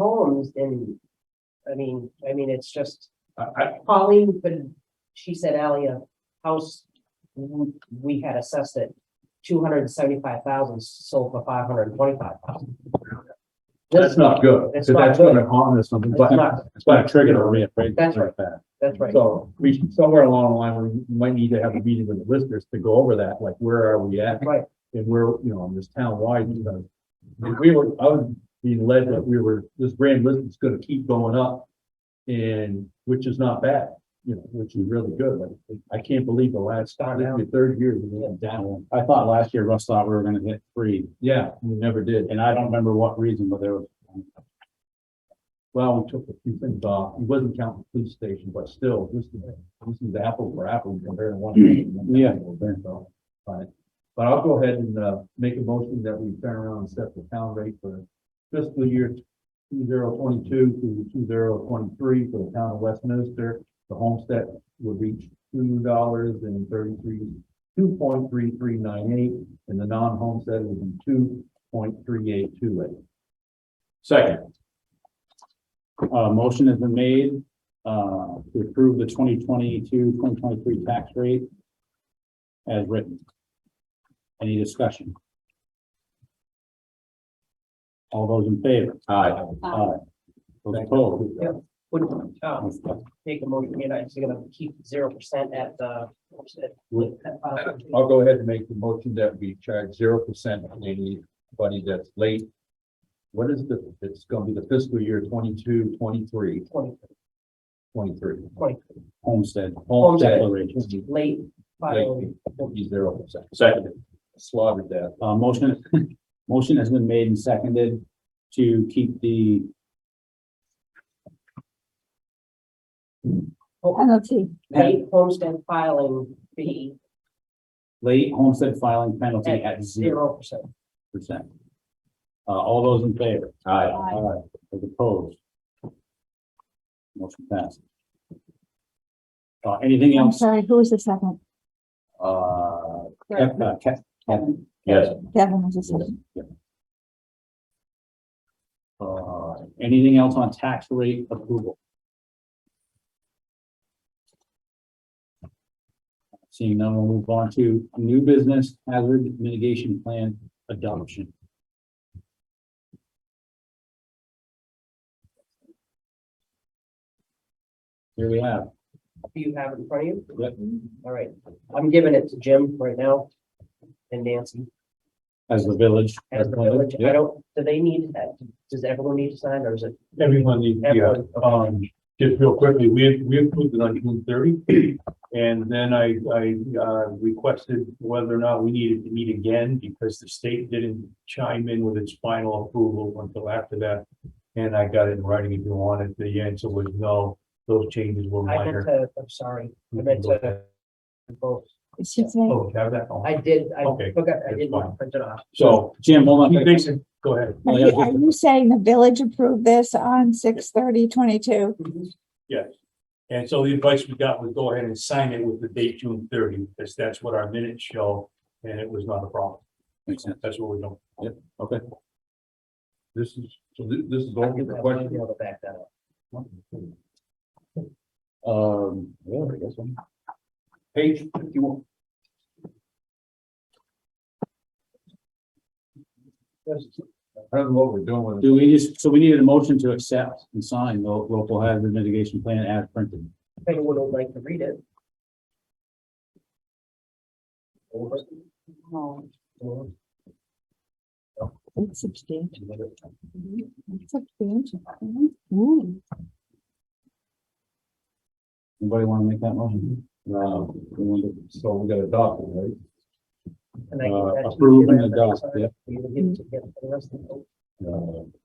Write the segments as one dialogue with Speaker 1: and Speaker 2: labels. Speaker 1: homes, then, I mean, I mean, it's just,
Speaker 2: I, I,
Speaker 1: Pauline, but she said, Ally, a house, we, we had assessed it two hundred and seventy-five thousand, sold for five hundred and twenty-five thousand.
Speaker 2: that's not good,
Speaker 1: That's
Speaker 2: so
Speaker 1: not
Speaker 2: that's
Speaker 1: good.
Speaker 2: gonna harm us something,
Speaker 1: That's
Speaker 2: but
Speaker 1: not-
Speaker 2: it's gonna trigger a reappraisal.
Speaker 1: That's
Speaker 2: like that.
Speaker 1: That's right.
Speaker 2: So we, somewhere along the line, we might need to have a meeting with the listeners to go over that, like, where are we at?
Speaker 1: Right.
Speaker 2: And where, you know, on this town-wide, you know, and we were, I was being led that we were, this brand list is gonna keep going up. And, which is not bad, you know, which is really good, like, I can't believe the last, the third year we went down.
Speaker 3: I thought last year Russ thought we were gonna hit three,
Speaker 2: Yeah, we never did,
Speaker 3: and I don't remember what reason, but there was.
Speaker 2: well, we took a few things off, it wasn't counting the police station, but still, this is, this is apple for apple compared to one.
Speaker 3: Yeah.
Speaker 2: So, But, but I'll go ahead and, uh, make a motion that we turn around and set the town rate for fiscal year two zero twenty-two to two zero twenty-three for the town of Westminster. The homestead would reach two dollars and thirty-three, two point three three nine eight, and the non-homestead would be two point three eight two eight.
Speaker 3: Second. Uh, motion has been made, uh, to approve the 2022-2023 tax rate as written. Any discussion? All those in favor?
Speaker 2: Aye.
Speaker 3: Aye. Those opposed?
Speaker 1: Yep. Would, um, take a motion, and I'm just gonna keep zero percent at the. at, uh,
Speaker 2: I'll go ahead and make the motion that we charge zero percent on anybody that's late. What is the, it's gonna be the fiscal year 22, 23, 23.
Speaker 1: 20,
Speaker 3: Homestead.
Speaker 1: Homestead.
Speaker 3: Declaration.
Speaker 1: Late, final,
Speaker 2: Zero percent.
Speaker 3: Seconded.
Speaker 2: Slaughtered that.
Speaker 3: Uh, motion, motion has been made and seconded to keep the
Speaker 4: penalty.
Speaker 1: late homestead filing fee
Speaker 3: late homestead filing penalty
Speaker 1: at
Speaker 3: at zero
Speaker 1: zero percent.
Speaker 3: percent. Uh, all those in favor?
Speaker 2: Aye.
Speaker 3: Aye. Those opposed? Motion passed. Uh, anything
Speaker 4: I'm
Speaker 3: else?
Speaker 4: sorry, who was the second?
Speaker 3: Uh, Kev- uh, Kev- Kevin?
Speaker 2: Yes.
Speaker 4: Kevin was the second.
Speaker 3: Uh, anything else on tax rate approval? Seeing none, we'll move on to new business hazard mitigation plan adoption. Here we have,
Speaker 1: Do you have it in front of you?
Speaker 3: Yep.
Speaker 1: All right, I'm giving it to Jim right now and Nancy
Speaker 3: as the village.
Speaker 1: as the village. I
Speaker 3: Yeah.
Speaker 1: don't, do they need that? Does everyone need to sign or is it?
Speaker 2: Everyone needs, yeah,
Speaker 1: everyone? Okay.
Speaker 2: um, just real quickly, we, we approved it on June thirty. And then I, I, uh, requested whether or not we needed to meet again because the state didn't chime in with its final approval until after that. And I got it in writing if you wanted. The answer was no, those changes were
Speaker 1: I meant
Speaker 2: minor.
Speaker 1: to, I'm sorry, I meant to both.
Speaker 4: It's just like,
Speaker 2: Oh, have that, Oh,
Speaker 1: I did, I
Speaker 2: Okay,
Speaker 1: forgot, I
Speaker 2: that's
Speaker 1: didn't
Speaker 2: fine.
Speaker 1: print it off.
Speaker 2: so,
Speaker 3: Jim, hold on.
Speaker 2: you
Speaker 3: a second.
Speaker 2: basically, go ahead,
Speaker 3: Oh,
Speaker 4: are
Speaker 3: yeah,
Speaker 4: you- are you saying the village approved this on six thirty twenty-two?
Speaker 2: yes.
Speaker 5: And so the advice we got was go ahead and sign it with the date June thirty, because that's what our minutes show, and it was not a problem.
Speaker 3: Makes sense.
Speaker 5: That's what we're doing.
Speaker 2: This is, so thi- this is
Speaker 1: I
Speaker 2: all
Speaker 1: do
Speaker 2: the
Speaker 1: have one
Speaker 2: question.
Speaker 1: deal to back that up.
Speaker 3: Um, yeah, I guess I'm-
Speaker 2: Page fifty-one. I don't know what we're doing with it.
Speaker 3: Do we just, so we needed a motion to accept and sign the local hazard mitigation plan as printed.
Speaker 1: If anyone would like to read it. Over. Over.
Speaker 4: It's substantial. It's substantial. Ooh,
Speaker 3: Anybody want to make that motion?
Speaker 2: Um, we want to- so we got a document, right?
Speaker 1: And I
Speaker 3: Uh,
Speaker 1: give that to you,
Speaker 3: approve
Speaker 1: Jim,
Speaker 3: and
Speaker 1: after I
Speaker 3: adopt,
Speaker 1: sign it. You can give it to Jim for the rest of the-
Speaker 2: Uh,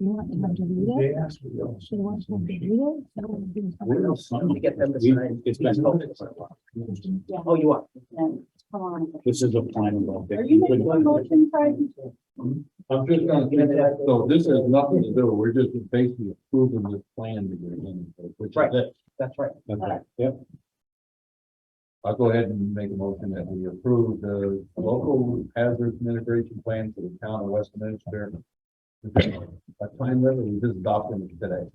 Speaker 4: You want him to read it?
Speaker 2: They asked me.
Speaker 4: She wants him to read it? That would be
Speaker 3: Where
Speaker 4: something.
Speaker 3: else?
Speaker 1: To get them to
Speaker 3: We-
Speaker 1: sign.
Speaker 3: it's been-
Speaker 1: Oh, you are.
Speaker 3: This is a final.
Speaker 6: Are you making a motion, Frank?
Speaker 2: I'm just gonna, give that- so this has nothing to do, we're just basically approving this plan that you're in, which is
Speaker 1: Right.
Speaker 2: it.
Speaker 1: That's right.
Speaker 2: Okay, Yep. I'll go ahead and make a motion that we approve the local hazard mitigation plan for the town of Westminster A time limit, we just adopted it today.